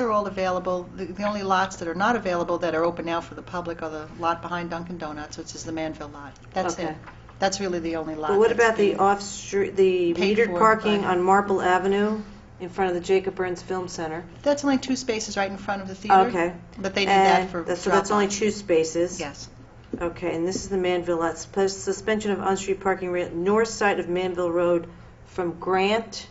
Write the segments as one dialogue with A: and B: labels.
A: are all available. The- The only lots that are not available that are open now for the public are the lot behind Dunkin' Donuts, which is the Manville lot. That's it.
B: Okay.
A: That's really the only lot.
B: But what
A: that's
B: about the
A: being-
B: off-street, the
A: Paid
B: metered
A: for
B: parking
A: by-
B: on Marple Avenue in front of the Jacob Burns Film Center?
A: That's only two spaces right in front of the theater.
B: Okay.
A: But they did that
B: And
A: for
B: that's- So that's only
A: drop-off.
B: two spaces?
A: Yes.
B: Okay, and this is the Manville lot, Sus- suspension of on-street parking, ra- north side of Manville Road from Grant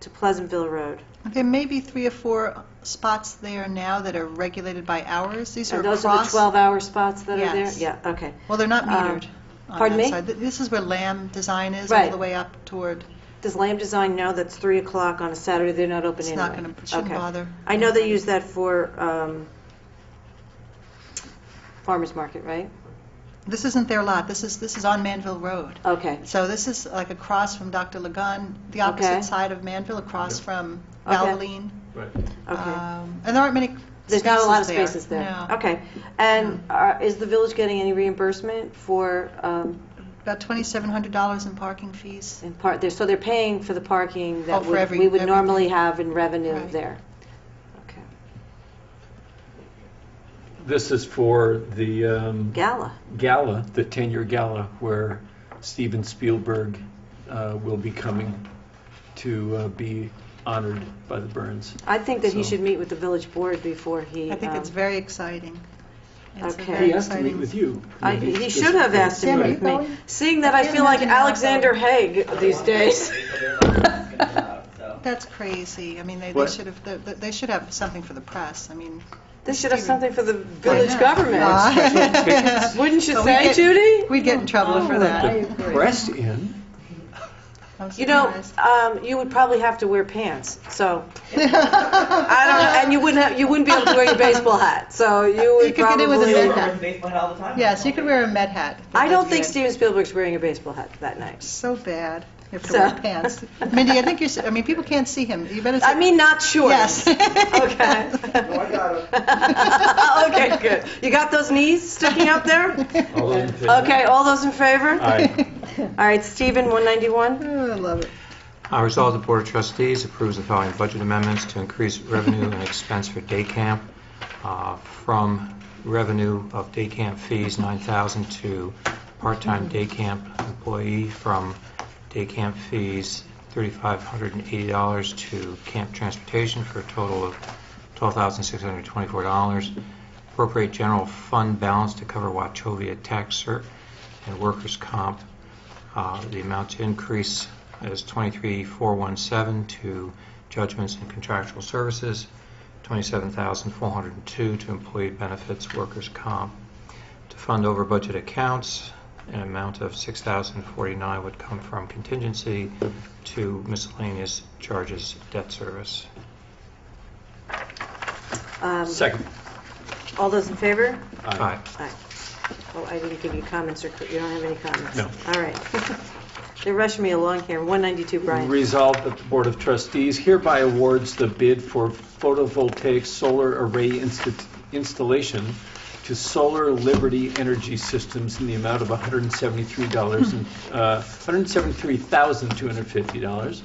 B: to Pleasantville Road.
A: There may be three or four spots there now that are regulated by hours. These are
B: And
A: across.
B: those are the 12-hour spots that are there?
A: Yes.
B: Yeah, okay.
A: Well, they're not
B: Um,
A: metered. on
B: pardon
A: that
B: me?
A: side. Th- This is where Lamb Design is, all
B: Right.
A: the way up toward,
B: Does Lamb Design know that's 3 o'clock on a Saturday, they're not open
A: it's
B: anyway?
A: not going to, shouldn't
B: Okay.
A: bother.
B: I know they use that for um, farmer's market, right?
A: This isn't their lot, this is, this is on Manville Road.
B: Okay,
A: So this is like across from Dr. Lagun, the
B: Okay.
A: opposite side of Manville, across
C: Yeah.
A: from
B: Okay.
A: Valvoline.
C: Right.
B: okay.
A: Um, And there aren't many
B: There's not a lot of
A: there.
B: spaces there.
A: No.
B: Okay. And are- is the village getting any reimbursement for, um,
A: About $2,700 in parking fees.
B: in part, they're- so they're paying for the parking
A: Oh,
B: that
A: for
B: would-
A: every-
B: we would
A: everything.
B: normally have in revenue
A: Right.
B: there? Okay.
C: This is for the um,
B: Gala.
C: gala, the 10-year gala, where Steven Spielberg uh, will be coming to uh, be honored by the Burns.
B: I think that he
C: So-
B: should meet with the village board before he...
A: I think
B: um,
A: it's very exciting. It's a
B: Okay.
A: very
C: He asked to meet
A: exciting-
C: with you.
B: I- He should have asked to
A: Sam, are
B: meet
A: you
B: with me,
A: going?
B: seeing that I
A: can't
B: feel like
A: imagine not
B: Alexander
A: going.
B: Haig these days.
A: That's crazy. I mean, they they
C: What?
A: should have, they- they they should have something for the press. I mean.
B: They should have something for the
A: I
B: village
A: know.
B: government.
A: Ah.
B: Wouldn't you
A: But we'd
B: say,
A: get-
B: Judy?
A: We'd get in trouble for that.
C: The press in.
A: I'm
B: Oh. You know,
A: surprised.
B: um, you would probably have to wear pants, so. I don't know, and you wouldn't have, you wouldn't be able to wear your baseball hat, so you
A: You
B: would
A: could get
B: probably.
A: it with a Met hat.
D: Yes,
A: Yes, you could wear a Met hat.
B: I don't think
A: Yeah.
B: Steven Spielberg's wearing a baseball hat that night.
A: So bad. You have to
B: So-
A: wear pants. Mindy, I think you should, I mean, people can't see him. You better.
B: I
A: say-
B: mean, not short.
A: Yes.
B: Okay. Okay, good. You got those knees sticking out there?
C: All in favor?
B: Okay, all those in favor?
C: Aye.
B: All right, Stephen, 191.
A: Oh, I love it.
E: Uh, Resolved, the Board of Trustees approves the following budget amendments to increase revenue and expense for day camp uh, from revenue of day camp fees, 9000 to part-time day camp employee, from day camp fees, $3,580 to camp transportation for a total of $12,624. Appropriate general fund balance to cover Wachovia tax cert and workers' comp uh, The amount to increase is 23,417 to judgments and contractual services, 27,402 to employee benefits, workers' comp. To fund over budget accounts, an amount of 6,049 would come from contingency to miscellaneous charges, debt service.
B: Um,
C: Second.
B: All those in favor?
C: Aye.
B: Aye. Oh, I didn't give you comments, or you don't have any comments?
C: No.
B: All right. They're rushing me along here. 192, Brian.
C: Resolved that the Board of Trustees hereby awards the bid for photovoltaic solar array insta- installation to Solar Liberty Energy Systems in the amount of $173, and, uh, $173,250.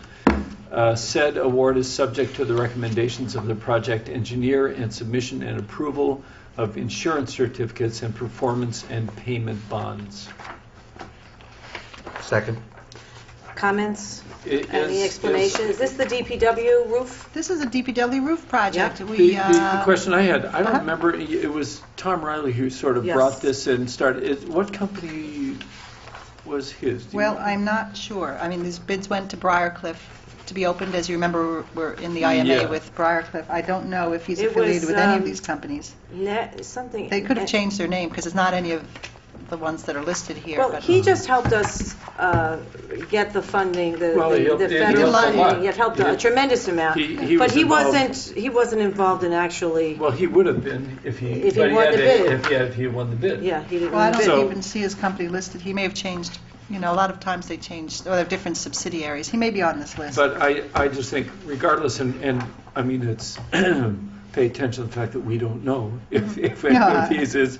C: Uh, Said award is subject to the recommendations of the project engineer and submission and approval of insurance certificates and performance and payment bonds.
E: Second.
B: Comments?
C: It is-
B: Any
C: is-
B: explanation? Is this the DPW roof?
A: This is a DPW roof project.
B: Yeah.
C: The,
A: We,
C: the
A: uh,
C: question I had, I don't
A: uh-huh.
C: remember, it it was Tom Riley who sort of
B: Yes.
C: brought this in, started, it- what company was his? Do you
A: well,
C: know?
A: I'm not sure. I mean, these bids went to Briarcliff to be opened. As you remember, we're in the IMA
C: Yeah.
A: with Briarcliff. I don't know if he's
B: It was,
A: affiliated with any
B: um,
A: of these companies.
B: Net, something?
A: They could have changed their name because it's not any of the ones that are listed here.
B: Well,
A: but-
B: he just helped us uh, get the funding, the
C: Well, he
B: the-
C: helped-
B: the
C: he
B: federal
A: helped a
C: lot.
B: funding. It helped
C: He
B: a
C: did.
B: tremendous amount.
C: He- he
B: But
C: was
B: he
C: involved.
B: wasn't, he wasn't involved in actually,
C: Well, he would have been if he.
B: If he
C: but
B: won the
C: had a-
B: bid.
C: If he had, if he had won the bid.
B: yeah, he didn't.
A: Well, I don't
C: So-
A: even see his company listed. He may have changed, you know, a lot of times they change, or they have different subsidiaries. He may be on this list.
C: But I, I just think regardless, and, and, I mean, it's, pay attention to the fact that we don't know if,
A: Mm-hmm.
C: if any
A: No, I-
C: of these is,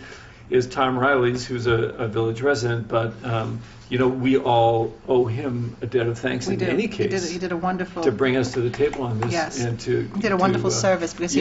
C: is Tom Riley's, who's a, a village resident, but, um, you know, we all owe him a debt of thanks
A: We
C: in
A: do.
C: any
A: He did-
C: case.
A: He did a wonderful.
C: to bring us to the table on this
A: Yes.
C: and to.
A: He did a wonderful
C: to, uh,
A: service because he